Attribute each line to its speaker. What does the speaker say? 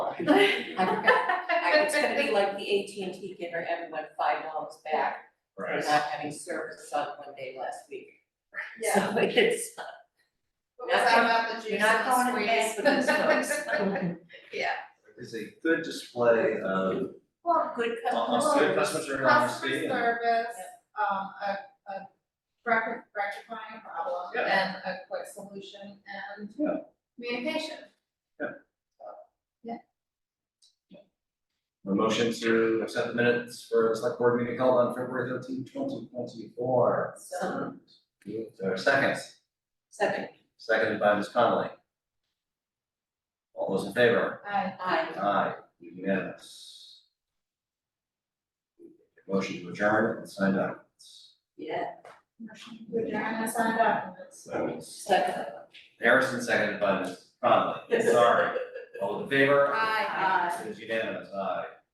Speaker 1: I forgot, I- it's gonna be like the AT&T giving everyone five dollars back for
Speaker 2: Right.
Speaker 1: not having service on one day last week.
Speaker 3: Yeah,
Speaker 1: So it's,
Speaker 3: but was that about the
Speaker 1: you're
Speaker 3: juice
Speaker 1: not
Speaker 3: and
Speaker 1: going to
Speaker 3: the
Speaker 1: mess with these
Speaker 3: squeeze?
Speaker 1: folks.
Speaker 3: Yeah.
Speaker 2: It's a good display of,
Speaker 1: Well, good customer.
Speaker 3: Well,
Speaker 2: good
Speaker 1: service.
Speaker 2: customer service,
Speaker 3: Customer
Speaker 2: honesty, and
Speaker 3: service, um, a, a rec- rectifying a problem
Speaker 2: Yeah.
Speaker 3: and a quick solution and
Speaker 2: Yeah.
Speaker 3: communication.
Speaker 2: a motion to accept the minutes for the select board meeting held on February thirteenth, twenty twenty-four.
Speaker 1: So,
Speaker 2: There are seconds,
Speaker 1: second,
Speaker 2: seconded by Ms. Connolly. All those in favor?
Speaker 3: I,
Speaker 1: I,
Speaker 2: Aye, unanimous. Motion to adjourn and sign documents.
Speaker 1: yeah,
Speaker 3: we're trying to sign documents.
Speaker 1: second,
Speaker 2: Harrison seconded by Ms. Conley, sorry. All in favor?
Speaker 3: Aye.
Speaker 1: I.
Speaker 2: It is unanimous, aye.